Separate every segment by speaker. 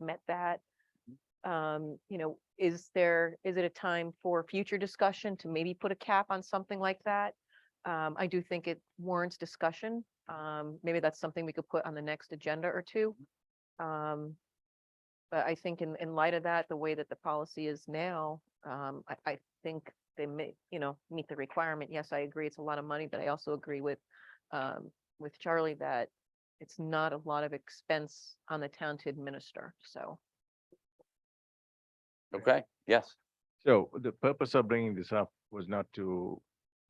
Speaker 1: met that. Um, you know, is there, is it a time for future discussion to maybe put a cap on something like that? Um, I do think it warrants discussion. Um, maybe that's something we could put on the next agenda or two. Um, but I think in, in light of that, the way that the policy is now, um, I, I think they may, you know, meet the requirement. Yes, I agree. It's a lot of money, but I also agree with, um, with Charlie that it's not a lot of expense on the town to administer, so.
Speaker 2: Okay, yes,
Speaker 3: So the purpose of bringing this up was not to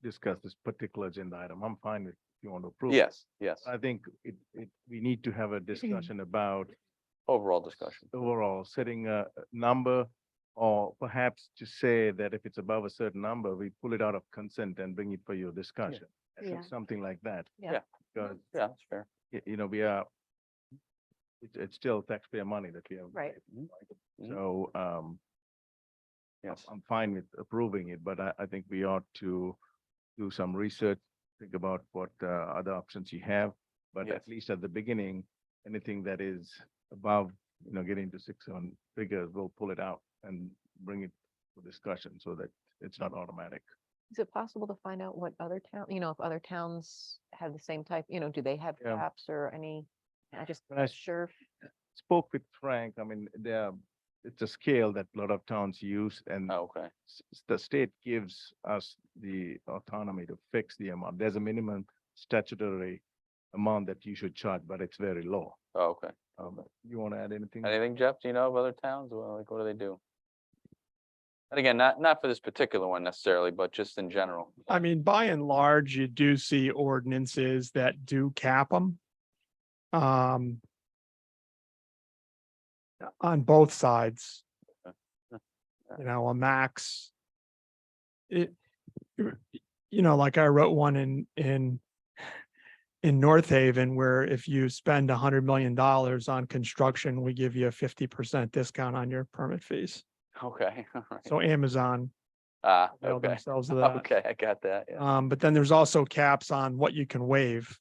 Speaker 3: discuss this particular agenda item. I'm fine with if you want to approve. it.
Speaker 2: yes, yes,
Speaker 3: I think it, it, we need to have a discussion about
Speaker 2: overall discussion.
Speaker 3: overall setting a a number or perhaps to say that if it's above a certain number, we pull it out of consent and bring it for your discussion. I think
Speaker 1: Yeah.
Speaker 3: Something like that.
Speaker 1: Yeah.
Speaker 2: Yeah.
Speaker 3: Because,
Speaker 2: Yeah, that's fair.
Speaker 3: y- you know, we are, it's, it's still taxpayer money that we have.
Speaker 1: Right.
Speaker 2: Mhm. Mhm.
Speaker 3: So, um, I'm-
Speaker 2: Yes,
Speaker 3: I'm fine with approving it, but I, I think we ought to do some research, think about what uh, other options you have. But
Speaker 2: Yes.
Speaker 3: at least at the beginning, anything that is above, you know, getting to six on figures, we'll pull it out and bring it for discussion so that it's not automatic.
Speaker 1: Is it possible to find out what other town, you know, if other towns have the same type, you know, do they have
Speaker 3: Yeah.
Speaker 1: caps or any? I just,
Speaker 3: When I s-
Speaker 1: sure,
Speaker 3: spoke with Frank, I mean, there, are- it's a scale that a lot of towns use and
Speaker 2: Oh, okay,
Speaker 3: s- s- the state gives us the autonomy to fix the amount. There's a minimum statutory amount that you should charge, but it's very low.
Speaker 2: oh, okay.
Speaker 3: Um, you want to add anything?
Speaker 2: Anything, Jeff, do you know of other towns? Well, like, what do they do? And again, not, not for this particular one necessarily, but just in general.
Speaker 4: I mean, by and large, you do see ordinances that do cap them. Um. On both sides.
Speaker 2: Okay.
Speaker 4: You know, a max. It, you know, like I wrote one in, in. In North Haven, where if you spend a hundred million dollars on construction, we give you a fifty percent discount on your permit fees.
Speaker 2: Okay, all right.
Speaker 4: So Amazon
Speaker 2: Ah,
Speaker 4: availed
Speaker 2: okay,
Speaker 4: themselves of
Speaker 3: uh,
Speaker 4: that.
Speaker 2: okay, I got that, yeah.
Speaker 4: Um, but then there's also caps on what you can waive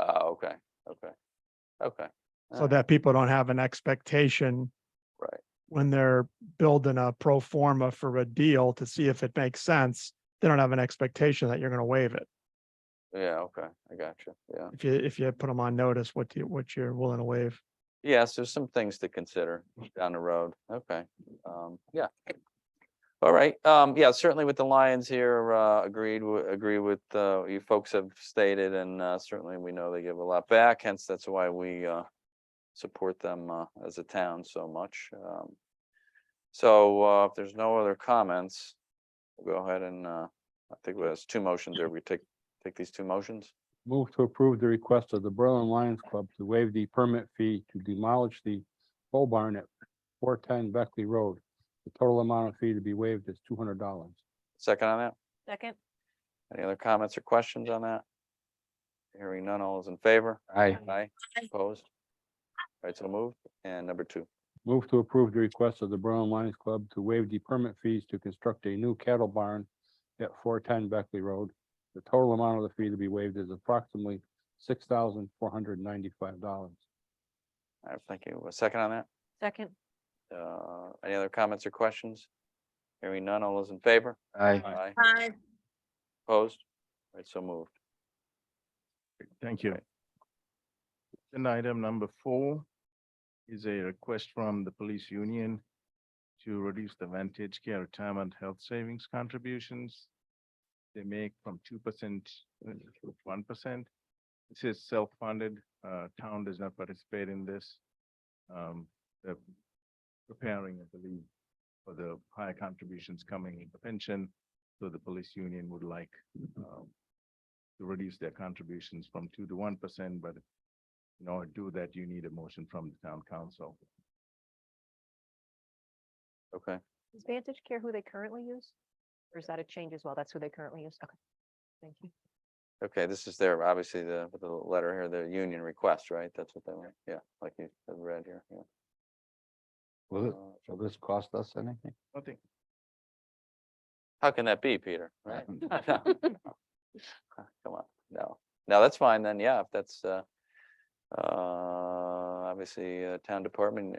Speaker 2: Oh, okay, okay, okay.
Speaker 4: so
Speaker 2: Alright.
Speaker 4: that people don't have an expectation.
Speaker 2: Right.
Speaker 4: When they're building a pro forma for a deal to see if it makes sense, they don't have an expectation that you're gonna waive it.
Speaker 2: Yeah, okay, I got you, yeah.
Speaker 4: If you, if you put them on notice, what do you, what you're willing to waive.
Speaker 2: Yes, there's some things to consider down the road. Okay, um, yeah. All right, um, yeah, certainly with the Lions here, uh, agreed, wi- agree with, uh, you folks have stated and, uh, certainly we know they give a lot back, hence that's why we, uh, support them, uh, as a town so much. Um, so, uh, if there's no other comments, we'll go ahead and, uh, I think there's two motions there. We take, take these two motions.
Speaker 5: Move to approve the request of the Berlin Lions Club to waive the permit fee to demolish the pole barn at four ten Beckley Road. The total amount of fee to be waived is two hundred dollars.
Speaker 2: Second on that?
Speaker 1: second,
Speaker 2: Any other comments or questions on that? Hearing none, all is in favor?
Speaker 5: I
Speaker 2: Aye, opposed? All right, so moved. And number two,
Speaker 5: move to approve the request of the Berlin Lions Club to waive the permit fees to construct a new cattle barn at four ten Beckley Road. The total amount of the fee to be waived is approximately six thousand four hundred ninety-five dollars.
Speaker 2: I thank you. A second on that?
Speaker 1: second,
Speaker 2: Uh, any other comments or questions? Hearing none, all is in favor?
Speaker 5: Aye.
Speaker 2: Aye. Aye. Opposed? All right, so moved.
Speaker 3: Thank you. Agenda item number four is a request from the police union to reduce the Vantage Care Retirement Health Savings contributions they make from two percent uh, to one percent. This is self-funded. Uh, town does not participate in this. Um, they're preparing, I believe, for the higher contributions coming in the pension. So the police union would like, um, to reduce their contributions from two to one percent, but in order to do that, you need a motion from the town council.
Speaker 2: Okay,
Speaker 1: is Vantage Care who they currently use? Or is that a change as well? That's who they currently use? Okay, thank you.
Speaker 2: okay, this is their, obviously the, the letter here, the union request, right? That's what they want. Yeah, like you have read here, yeah.
Speaker 5: Will
Speaker 2: Uh,
Speaker 5: will this cost us anything?
Speaker 3: Nothing.
Speaker 2: How can that be, Peter? Right? Come on, no, no, that's fine then, yeah, if that's, uh, uh, obviously, uh, town department